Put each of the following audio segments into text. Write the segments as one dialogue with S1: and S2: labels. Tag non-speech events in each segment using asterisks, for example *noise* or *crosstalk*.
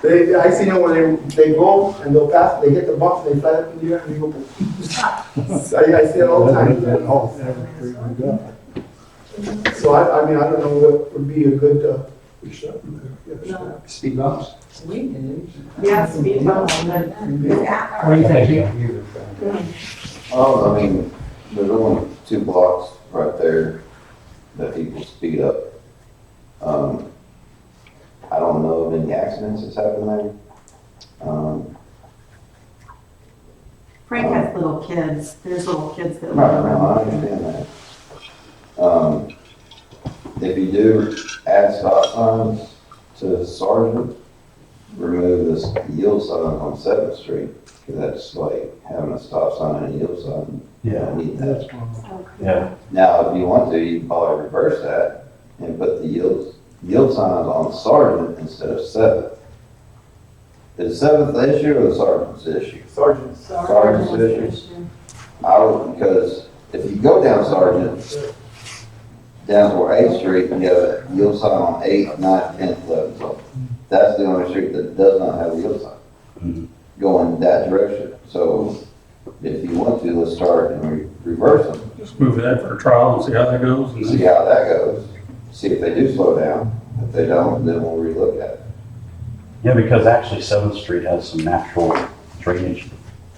S1: They, I seen it when they, they go and they'll pass, they hit the bump, they fly up in the air and they go. *laughs* I, I see it all the
S2: That's
S1: time.
S2: all, every street we got.
S1: So I, I mean, I don't know what would be a good, uh,
S3: Speed bumps?
S4: We did.
S5: Yeah, speed bump.
S2: What do you think?
S6: Oh, I mean, there's only two blocks right there that people speed up. Um, I don't know of any accidents that's happened there. Um,
S5: Frank has little kids, there's little kids that
S6: no,
S5: live
S6: no,
S5: around.
S6: I understand that. Um, if you do add stop signs to Sergeant, remove this yield sign on Seventh Street, because that's like having a stop sign and a yield sign. You
S2: Yeah,
S6: don't need that.
S2: that's one. of
S7: Yeah,
S6: Now, if you want to, you can probably reverse that and put the yield, yield signs on sergeant instead of seventh. Is seventh the issue or the sergeant's issue?
S1: sergeants.
S6: Sergeant's issue. I would, because if you go down sergeant, down toward Eighth Street, and you have a yield sign on Eighth, Ninth, Tenth, Eleventh, so that's the only street that does not have a yield
S7: Mhm.
S6: sign going that direction. So if you want to, let's start and re- reverse them.
S8: Just move that for a trial and see how that goes and
S6: see
S8: see.
S6: how that goes, see if they do slow down. If they don't, then we'll relook at it.
S7: yeah, because actually Seventh Street has some natural drainage.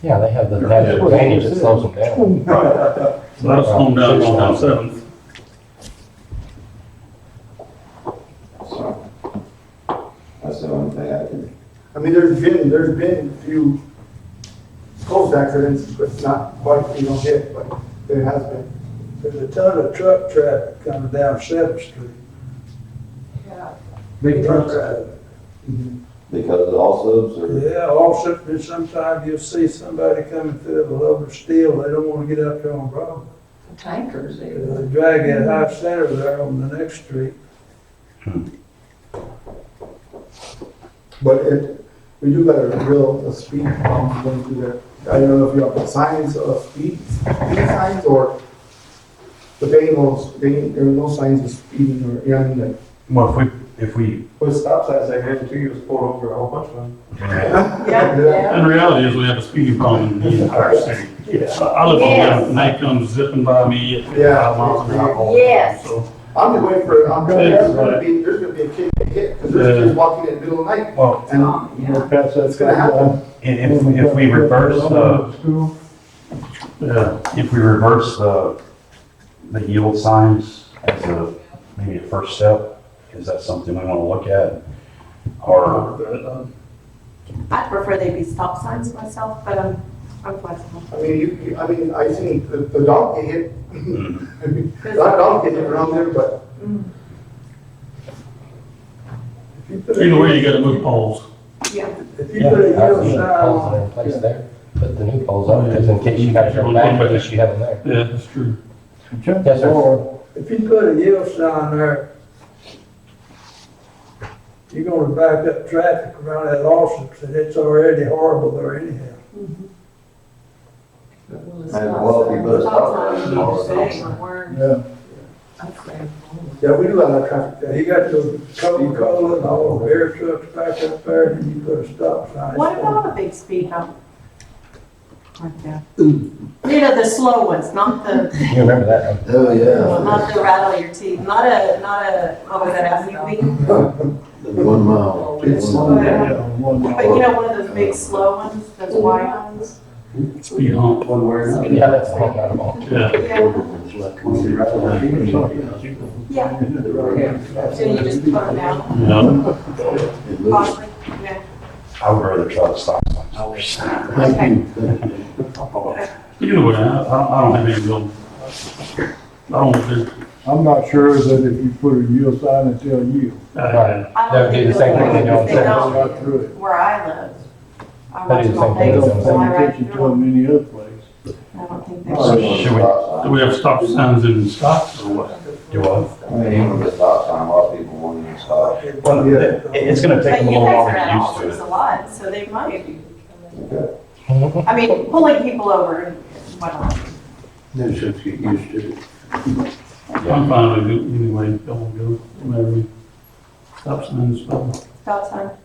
S9: Yeah, they have the natural drainage that slows them down.
S8: So that'll slow them down going down Seventh.
S6: So that's the only thing I can,
S1: I mean, there's been, there's been a few close accidents, but not quite, you know, hit, but there has been.
S3: There's a ton of truck traffic coming down Seventh Street. Big truck traffic.
S6: because of all subs or,
S3: Yeah, also, sometimes you'll see somebody coming through with a load of steel, they don't wanna get up there on Broadway.
S4: Tankers, they were.
S3: They drag that high center there on the next street.
S1: But it, we do got a real, a speed bump going through there. I don't know if you have signs of speed, speed signs or, but they ain't no, they ain't, there are no signs of speeding or, yeah, I mean, like,
S7: Well, if we, if we,
S2: With stop signs, I guarantee you was pulled over a whole bunch of them.
S5: Yeah, yeah.
S8: And the reality is we have a speeding problem in the entire city.
S2: Yeah.
S8: I I live on
S5: Yes.
S8: that and they come zipping by me at
S1: Yeah.
S8: five miles an hour. all the time,
S5: Yes.
S8: So,
S1: I'm just waiting for, I'm, there's gonna
S8: right.
S1: be, there's gonna be a kid that hit, cause there's
S8: Yeah.
S1: kids walking in the middle of the night.
S7: well,
S1: And
S5: Oh,
S2: We're past that
S1: it's gonna happen.
S7: and if, if we reverse
S8: uh,
S7: the,
S2: School,
S8: yeah,
S7: if we reverse the, the yield signs as a, maybe a first step, is that something we want to look at? Or,
S8: but, uh,
S5: I prefer they be stop signs myself, but I'm, I'm flexible.
S1: I mean, you, you- I mean, I seen the, the dog get hit, *laughs*
S7: mm,
S1: that dog get hit around there, but
S8: either way, you gotta move poles.
S5: Yeah.
S3: If you
S9: Yeah,
S3: put a
S9: I've
S3: yield
S9: seen the
S3: sign
S9: poles
S3: on
S9: that are in place there, put the new poles up, because in case you gotta turn back, in case you have them there.
S8: Yeah, that's true.
S9: Yes, sir.
S3: If you put a yield sign there, you're gonna back up traffic around that Lawson's, and it's already horrible there anyhow.
S6: well, if you put a stop sign, it's all
S4: Stop
S6: the
S4: sign,
S6: same.
S4: a word.
S1: Yeah.
S4: I'd say, oh,
S1: yeah, we do have that traffic there.
S3: Now, you got the Coca-Cola and all the beer trucks back up there, and you put a stop sign.
S5: What about a big speed bump? Like that. You know, the slow ones, not the,
S9: You remember that, huh?
S6: oh yeah,
S5: not the rattle your teeth, not a, not a, what was that, ass
S6: the one mile.
S1: It's
S6: one mile.
S5: Yeah.
S2: yeah, one
S5: But you know, one of those big slow ones, those wide ones?
S8: Speed hump.
S3: One word.
S9: Yeah, that's the one, not a ball.
S8: Yeah.
S5: Yeah, yeah. So you just put them down,
S8: Yeah.
S5: possibly, yeah.
S7: I would rather try to stop signs.
S5: Okay.
S8: Either way, I, I I don't have any real, I don't, think-
S2: I'm not sure that if you put a yield sign until you,
S8: I,
S5: I
S9: That
S5: don't
S9: would be
S5: think they'll
S9: the same thing they do
S5: work if
S9: on
S5: they
S9: Saturday.
S5: don't,
S2: not through it.
S5: where I live. I
S9: That
S5: watch
S9: is
S5: them on
S9: the same thing.
S5: Facebook, so I
S2: Paying
S5: ride
S2: attention to
S5: through them.
S2: them any other place.
S5: I don't think
S6: It's
S5: they're.
S6: similar to stop
S8: do
S7: Should we-
S6: sign.
S8: we have stop signs in stops or what?
S7: Do what?
S6: I mean, even with a stop sign, a lot of people won't even stop.
S3: Oh,
S7: Well, it- it's going to take
S5: But
S7: them a
S5: you guys
S7: little while
S5: are
S7: to
S5: at
S7: get used
S5: all
S7: to it.
S5: sorts a lot, so they might.
S6: Okay.
S5: I mean, pulling people over, and whatnot.
S3: They should get used to it.
S8: I'm fine with it anyway, don't go, whatever. Stop signs, stop.
S5: stop sign.